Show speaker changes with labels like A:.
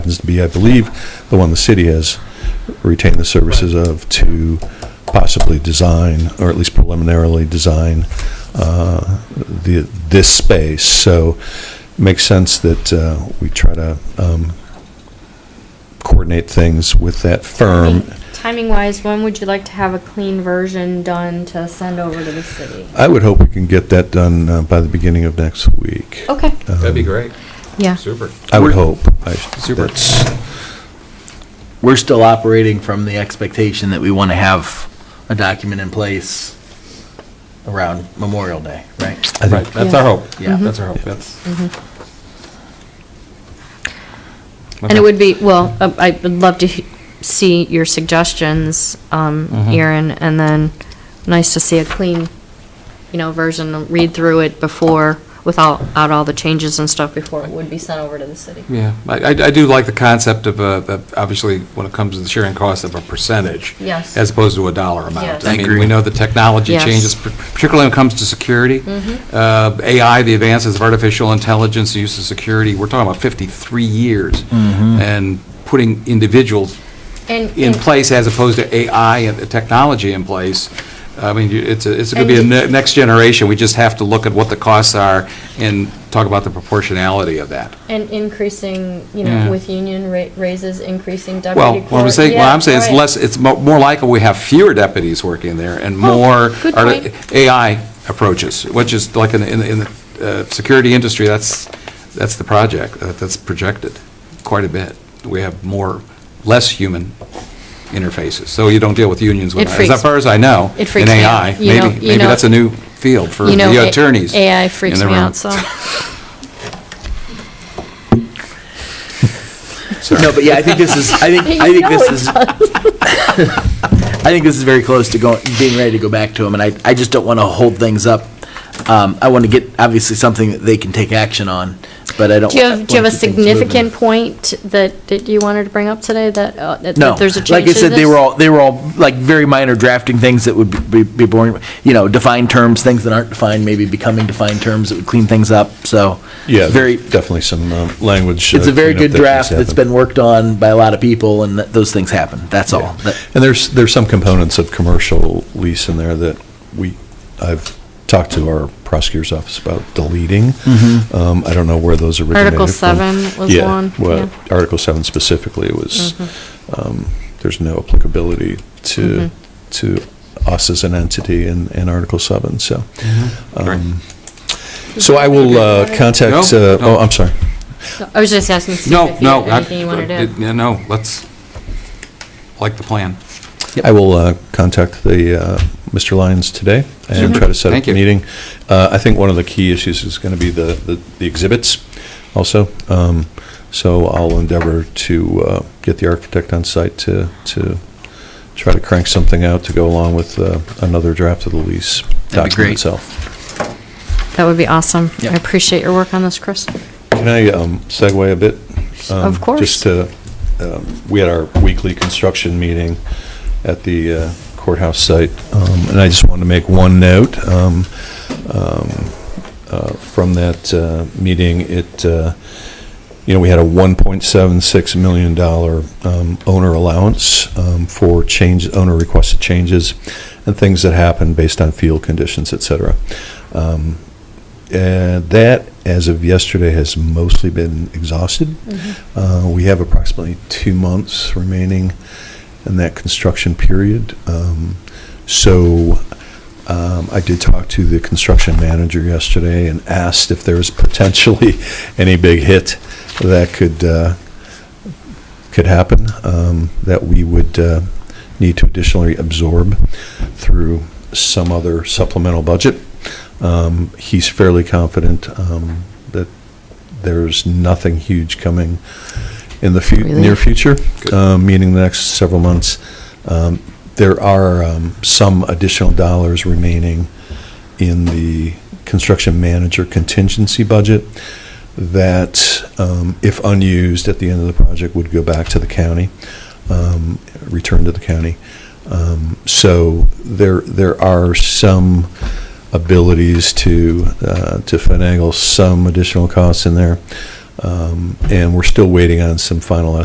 A: happens to be, I believe, the one the city has retained the services of to possibly design, or at least preliminarily design, uh, the, this space. So it makes sense that uh, we try to um, coordinate things with that firm.
B: Timing wise, when would you like to have a clean version done to send over to the city?
A: I would hope we can get that done uh, by the beginning of next week. Um,
B: Okay,
C: That'd be great.
B: yeah.
C: Super.
A: I would hope. I-
C: Super.
A: that's-
D: we're still operating from the expectation that we want to have a document in place around Memorial Day, right?
A: I
C: Right,
A: think Mm-hmm.
C: that's our hope.
D: Yeah.
C: That's our hope, that's.
B: Mm-hmm. And it would be, well, uh, I would love to he- see your suggestions, um,
D: Mm-hmm.
B: Erin, and then nice to see a clean, you know, version, read through it before, without, out all the changes and stuff before it would be sent over to the city.
C: Yeah, I, I I do like the concept of, uh, of- obviously, when it comes to the sharing cost of a percentage.
B: Yes.
C: As opposed to a dollar amount.
B: Yes.
C: I mean,
D: Agree.
C: we know the technology
B: Yes. Mm-hmm.
C: changes, par- particularly when it comes to security. Uh, AI, the advances of artificial intelligence, the use of security, we're talking about 53 years.
A: Mm-hmm.
C: And putting individuals
B: And-
C: in
B: and-
C: place as opposed to AI and the technology in place. I mean, you- it's, a- it's going to be a
B: And-
C: ne- next generation. We just have to look at what the costs are and talk about the proportionality of that.
B: And increasing, you know,
C: Yeah.
B: with union ra- raises, increasing
C: Well,
B: deputy clerk.
C: what I'm saying, what
B: Yeah,
C: I'm saying is
B: right.
C: less, it's mo- more likely we have fewer deputies working there and more
B: Oh, good
C: arti-
B: point.
C: AI approaches, which is like in, the- in the- in the uh, security industry, that's, that's the project, uh, that's projected quite a bit. We have more, less human interfaces, so you don't deal with unions with,
B: It
C: as
B: freaks-
C: far as I know.
B: it freaks me
C: In
B: out.
C: AI,
B: You know-
C: maybe,
B: you
C: maybe
B: know-
C: that's a new field for
B: You know,
C: the
B: A-
C: attorneys.
B: AI
C: in
B: freaks
C: the
B: me
C: room.
B: out, so.
D: No, but yeah, I think this is, I think, I think this is, I think this is very close to going, being ready to go back to them, and I, I just don't want to hold things up. Um, I want to get, obviously, something that they can take action on, but I don't.
B: Do you have, do you have a
D: wanna keep things moving.
B: significant point that, that you wanted to bring up today, that, uh, that
D: No.
B: that there's a change
D: Like I
B: to
D: said, they
B: this?
D: were all, they were all, like, very minor drafting things that would be, be boring, you know, defined terms, things that aren't defined, maybe becoming defined terms that would clean things up, so.
A: Yeah,
D: Very,
A: definitely some um, language.
D: it's
A: uh,
D: a very
A: cleanup
D: good
A: that needs to
D: draft that's
A: happen.
D: been worked on by a lot of people, and that, those things happen, that's all.
A: Yeah.
D: That-
A: And there's, there's some components of commercial lease in there that we, I've talked to our prosecutor's office about deleting.
C: Mm-hmm.
A: Um, I don't know where those originated
B: Article
A: from.
B: 7 was
A: Yeah,
B: one,
A: well,
B: yeah. Mm-hmm.
A: Article 7 specifically was, um, there's no applicability to, to us as an entity in, in Article 7, so.
C: Mm-hmm.
A: um, So I will uh, contact,
C: No,
A: uh, oh,
C: no.
A: I'm sorry.
B: I was just asking Steve
C: No,
B: if you
C: no.
B: had anything you wanted to.
C: Yeah, No, let's, like the plan.
A: I will uh, contact the, uh, Mr. Lyons today and
C: Super.
A: try to set up
C: Thank
A: a
C: you.
A: meeting. Uh, I think one of the key issues is going to be the- the the exhibits also. Um, So I'll endeavor to uh, get the architect on site to to try to crank something out to go along with uh, another draft of the lease
D: That'd be
A: document
D: great.
A: itself.
B: That would be awesome. I
D: Yeah.
B: appreciate your work on this, Chris.
A: Can I um, segue a bit? Um,
B: Of course.
A: Just to, um, we had our weekly construction meeting at the uh, courthouse site, um, and I just wanted to make one note. um, um, uh, From that uh, meeting, it, uh, you know, we had a $1.76 million um, owner allowance um, for change, owner requested changes and things that happen based on field conditions, et cetera. Um, and Uh, that, as of yesterday, has mostly been exhausted. Uh, We have approximately two months remaining in that construction period. Um, So um, I did talk to the construction manager yesterday and asked if there was potentially any big hit that could, uh, could happen, um, that we would uh, need to additionally absorb through some other supplemental budget. Um, He's fairly confident um, that there's nothing huge coming in the fu-
B: Really?
A: near future, uh, meaning the next several months. Um, There are um, some additional dollars remaining in the construction manager contingency budget that, um, if unused at the end of the project, would go back to the county, um, return to the county. Um, So there, there are some abilities to, uh, to finagle some additional costs in there. Um, Um, And we're still waiting on some final